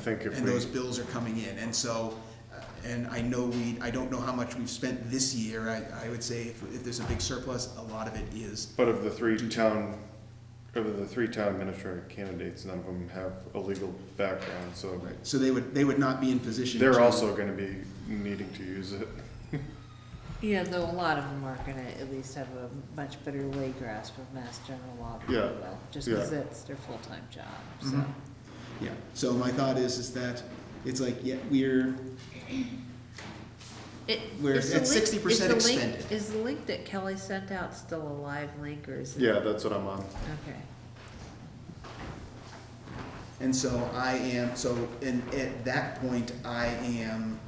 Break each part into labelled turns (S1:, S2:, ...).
S1: I think if
S2: and
S1: we-
S2: those bills are coming in, and so, uh, and I know we, I don't know how much we've spent this year, I, I would say if, if there's a big surplus, a lot of it is,
S1: But of the three town, of the three town administrator candidates, none of them have a legal background, so
S2: so they would, they would not be in position.
S1: they're
S2: to-
S1: also gonna be needing to use it.
S3: Yeah, though a lot of them are gonna at least have a much better lay grasp of mass general law than we
S1: Yeah,
S3: will, just because
S1: yeah.
S3: that's their full-time job, so.
S2: Mhm. Yeah, so my thought is, is that, it's like, yeah, we're,
S3: It-
S2: We're
S3: is the
S2: at 60%
S3: link- is the link-
S2: extended.
S3: Is the link that Kelly sent out still a live link, or is it?
S1: Yeah, that's what I'm on.
S3: Okay,
S2: and so I am, so, and at that point, I am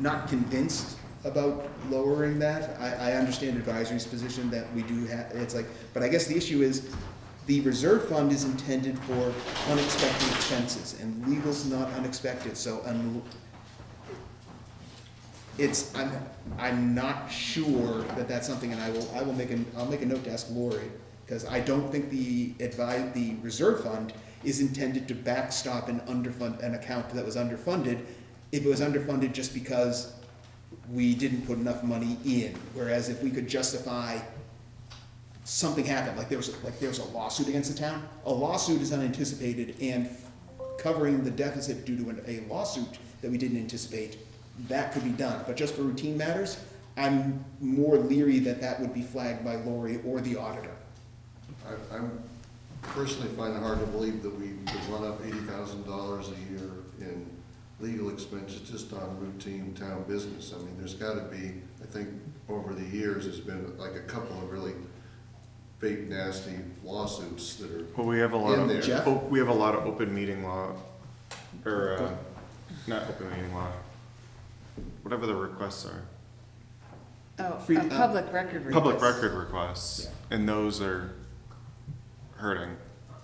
S2: not convinced about lowering that. I, I understand advisory's position that we do have, it's like, but I guess the issue is, the reserve fund is intended for unexpected expenses, and legal's not unexpected, so un- it's, I'm, I'm not sure that that's something, and I will, I will make an, I'll make a note to ask Lori, because I don't think the advi, the reserve fund is intended to backstop and underfund, an account that was underfunded, if it was underfunded just because we didn't put enough money in, whereas if we could justify something happened, like there was, like there was a lawsuit against the town. A lawsuit is unanticipated and covering the deficit due to an- a lawsuit that we didn't anticipate, that could be done. But just for routine matters, I'm more leery that that would be flagged by Lori or the auditor.
S4: I, I'm personally find it hard to believe that we could run up eighty thousand dollars a year in legal expenses just on routine town business. I mean, there's gotta be, I think, over the years, there's been like a couple of really big nasty lawsuits that are,
S1: Well, we have a lot
S4: In there.
S1: of,
S2: Jeff?
S1: oh, we have a lot of open meeting law, or, uh, not open meeting law, whatever the requests are.
S3: oh,
S2: Free-
S3: a
S2: uh,
S3: public record request.
S1: Public record requests, and those are hurting.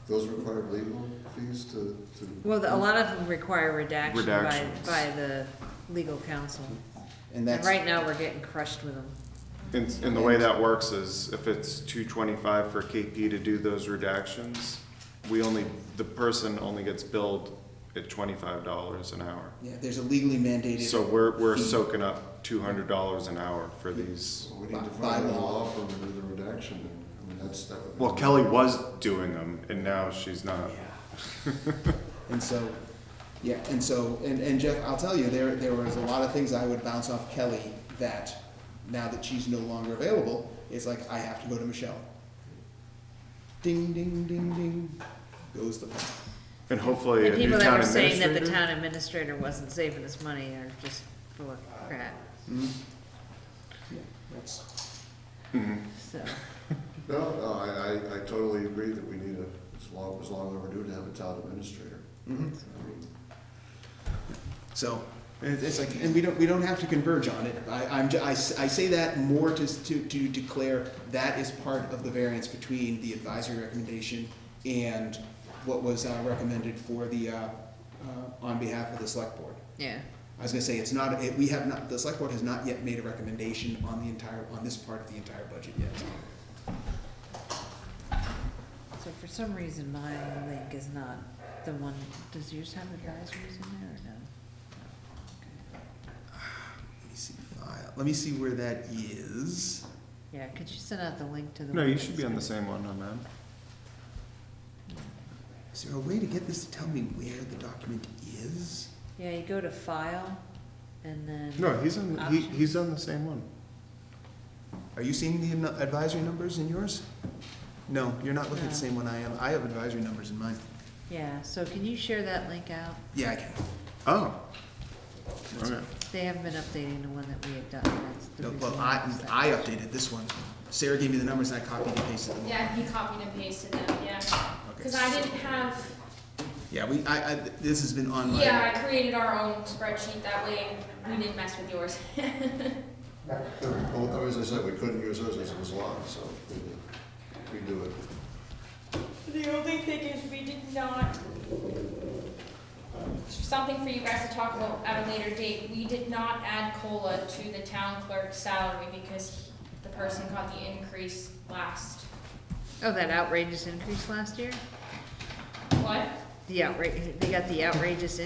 S4: those require legal fees to, to.
S3: Well, the- a lot of them require redaction by,
S1: Redactions.
S3: by the legal counsel,
S2: And
S3: and
S2: that's,
S3: right now, we're getting crushed with them.
S1: And, and the way that works is if it's two twenty-five for KP to do those redactions, we only, the person only gets billed at twenty-five dollars an hour.
S2: yeah, there's a legally mandated.
S1: So we're, we're
S2: fee.
S1: soaking up two hundred dollars an hour for these.
S4: We need to
S2: By- by
S4: find a
S2: law.
S4: law firm to do the redaction, I mean, that's, that would. be-
S1: Well, Kelly was doing them and now she's not.
S2: And so, yeah, and so, and, and Jeff, I'll tell you, there, there was a lot of things I would bounce off Kelly that, now that she's no longer available, it's like, I have to go to Michelle. Ding, ding, ding, ding, goes the phone.
S1: And hopefully
S3: And
S1: a new
S3: people that
S1: uh, town
S3: were saying that the
S1: administrator.
S3: town administrator wasn't saving his money are just full of crap,
S2: Mm. Yeah, that's,
S1: Mhm.
S3: so.
S4: No, no, I, I, I totally agree that we need a, it's long, it's long overdue to have a town administrator.
S2: mhm.
S4: I mean,
S2: So, it- it's like, and we don't, we don't have to converge on it. I, I'm, ju- I, s- I say that more to, s- to, to declare that is part of the variance between the advisory recommendation and what was uh, recommended for the, uh, uh, on behalf of the select board.
S3: Yeah,
S2: I was gonna say, it's not, it, we have not, the select board has not yet made a recommendation on the entire, on this part of the entire budget yet.
S3: so for some reason, my link is not the one, does yours have advisories in there or no? No? Okay.
S2: Let me see file, let me see where that is.
S3: Yeah, could you send out the link to the?
S1: No,
S3: one
S1: you
S3: that's
S1: should be on
S3: in-
S1: the same one on that.
S2: Is there a way to get this to tell me where the document is?
S3: Yeah, you go to file and then.
S1: No, he's on, he,
S3: Option.
S1: he's on the same one.
S2: Are you seeing the nu- advisory numbers in yours? No, you're not looking at the
S3: No.
S2: same one I am. I have advisory numbers in mine.
S3: Yeah, so can you share that link out?
S2: Yeah, I can.
S1: Oh. Okay.
S3: They haven't been updating the one that we had done, that's the
S2: No,
S3: reason.
S2: Well,
S3: why
S2: I,
S3: was that.
S2: I updated this one. Sarah gave me the numbers and I copied and pasted them.
S5: Yeah, he copied and pasted them, yeah.
S2: Okay,
S5: Because I
S2: so-
S5: didn't have,
S2: Yeah, we, I, I, this has been on my.
S5: yeah, I created our own spreadsheet, that way we didn't mess with yours.
S4: Well, as I said, we couldn't use those as it was locked, so we do it.
S5: The only thing is, we did not, something for you guys to talk about at a later date, we did not add COLA to the town clerk's salary because he- the person got the increase last.
S3: Oh, that outrageous increase last year?
S5: What?
S3: the outrage, they got the outrageous